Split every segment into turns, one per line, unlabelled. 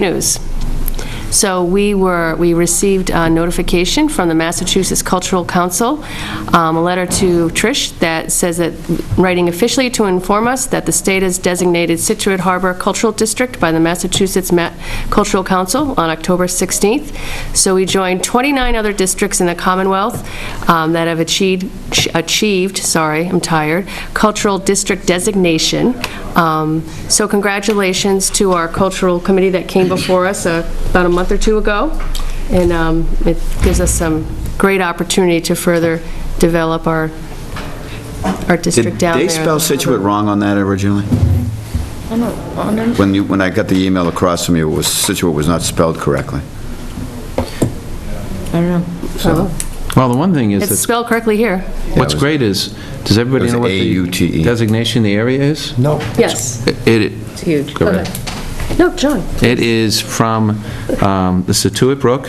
news. So we were, we received uh, notification from the Massachusetts Cultural Council, um, a letter to Trish that says that, writing officially to inform us that the state has designated Situate Harbor Cultural District by the Massachusetts Ma- Cultural Council on October 16th. So we joined 29 other districts in the Commonwealth um, that have achieved, achieved, sorry, I'm tired, cultural district designation. Um, So congratulations to our cultural committee that came before us uh, about a month or two ago, and um, it gives us some great opportunity to further develop our, our district
Did
down there.
they spell Situate wrong on that originally? When you, when I got the email across from you, it was, Situate was not spelled correctly.
I don't know.
Oh.
Well, the one thing is,
It's
that's-
spelled correctly here.
what's
Yeah, it was-
great is, does
It
everybody
was
know what the
A-U-T-E.
designation of the area is?
No.
Yes.
It,
It's huge.
correct.
No, John.
It is from um, the Situate Brook,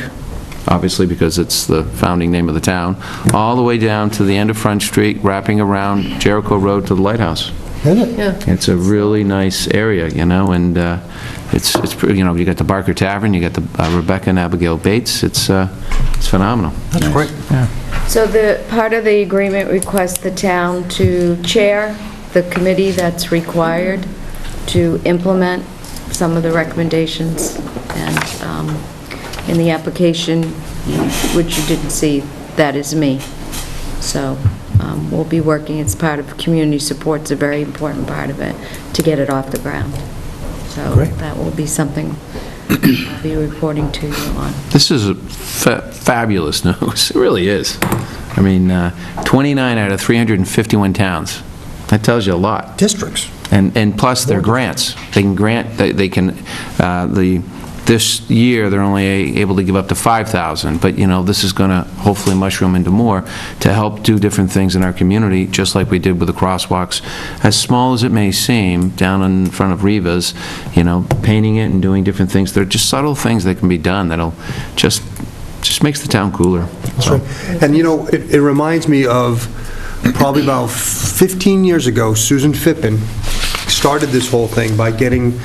obviously because it's the founding name of the town, all the way down to the end of Front Street, wrapping around Jericho Road to the lighthouse.
Is it?
Yeah.
It's a really nice area, you know, and uh, it's, it's pre- you know, you got the Barker Tavern, you got the uh, Rebecca and Abigail Bates, it's uh, it's phenomenal.
That's great.
So the, part of the agreement requests the town to chair the committee that's required to implement some of the recommendations. And um, in the application, which you didn't see, that is me. So um, we'll be working, it's part of, community support's a very important part of it, to get it off the ground. So
Great.
that will be something I'll be reporting to you on.
This is a fa- fabulous news, it really is. I mean, uh, 29 out of 351 towns, that tells you a lot.
Districts.
And, and plus, they're grants, they can grant, they they can, uh, the, this year, they're only a- able to give up to 5,000, but, you know, this is going to hopefully mushroom into more to help do different things in our community, just like we did with the crosswalks, as small as it may seem, down in front of Riva's, you know, painting it and doing different things, they're just subtle things that can be done that'll just, just makes the town cooler.
That's right. And you know, it it reminds me of probably about 15 years ago, Susan Fippen started this whole thing by getting,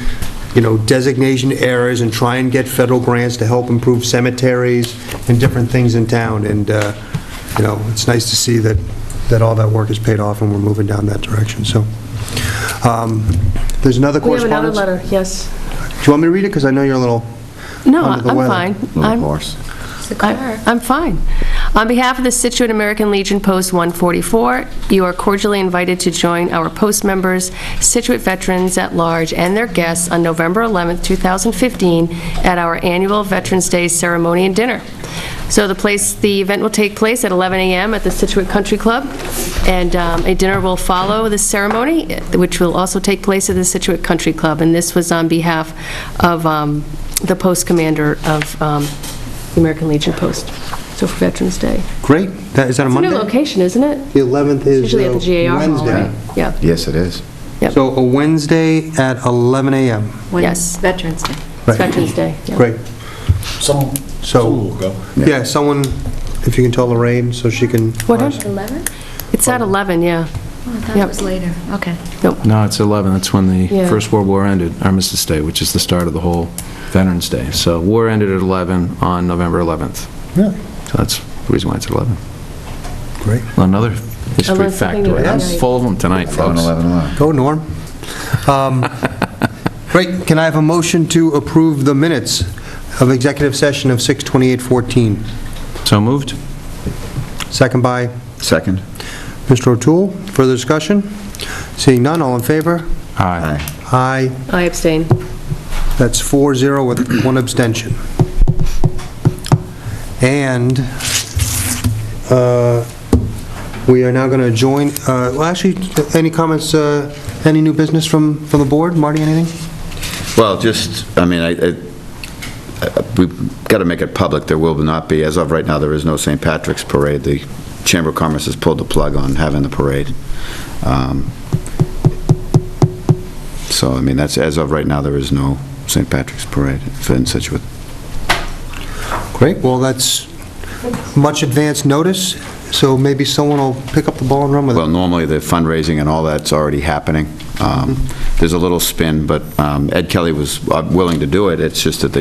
you know, designation errors and try and get federal grants to help improve cemeteries and different things in town. And, uh, you know, it's nice to see that, that all that work is paid off and we're moving down that direction, so. um, There's another
We have another
correspondence?
letter, yes.
Do you want me to read it? Because I know you're a little...
No,
Under the
I'm
weather.
fine.
Little
I'm-
horse.
I- I'm fine. On behalf of the Situate American Legion Post 144, you are cordially invited to join our post members, Situate veterans at large, and their guests on November 11th, 2015, at our annual Veterans Day ceremony and dinner. So the place, the event will take place at 11 a.m. at the Situate Country Club, and um, a dinner will follow the ceremony, which will also take place at the Situate Country Club. And this was on behalf of um, the post commander of um, the American Legion Post, so for Veterans Day.
Great. That- Is that a
It's a
Monday?
new location, isn't it?
The 11th is
Usually at the
uh,
GAR Hall,
Wednesday.
right? Yeah,
Yes, it is.
Yep.
So a Wednesday at 11 a.m.
When
Yes.
Veterans Day.
it's Veterans Day. yeah.
Great.
Some,
So-
some will go.
Yeah, someone, if you can tell Lorraine, so she can...
What time?
11?
It's at 11, yeah.
Oh, I thought
Yep.
it was later. Okay.
No, it's 11, that's when
Yeah.
the First World War ended, Armistice Day, which is the start of the whole Veterans Day. So war ended at 11 on November 11th.
Yeah,
So that's the reason why it's 11.
Great.
Well, Another history
Unless something
factoid. I'm
is-
full of them tonight,
Eleven,
folks.
eleven, eleven.
Go, Norm. Um, Great. Can I have a motion to approve the minutes of executive session of 6:28:14?
So moved?
Second by
Second?
Mr. O'Toole. Further discussion? Seeing none, all in favor?
Aye.
Aye.
I abstain.
That's 4-0 with one abstention. And uh, we are now going to join, uh, well, actually, any comments, uh, any new business from, from the board? Marty, anything?
Well, just, I mean, I, I- I- we've got to make it public, there will not be, as of right now, there is no St. Patrick's Parade. The Chamber of Commerce has pulled the plug on having the parade. Um, So, I mean, that's, as of right now, there is no St. Patrick's Parade in Situate.
Great. Well, that's much advance notice, so maybe someone will pick up the ball and run with it.
Well, normally the fundraising and all that's already happening. Um, Um, There's a little spin, but um, Ed Kelly was uh, willing to do it, it's just that they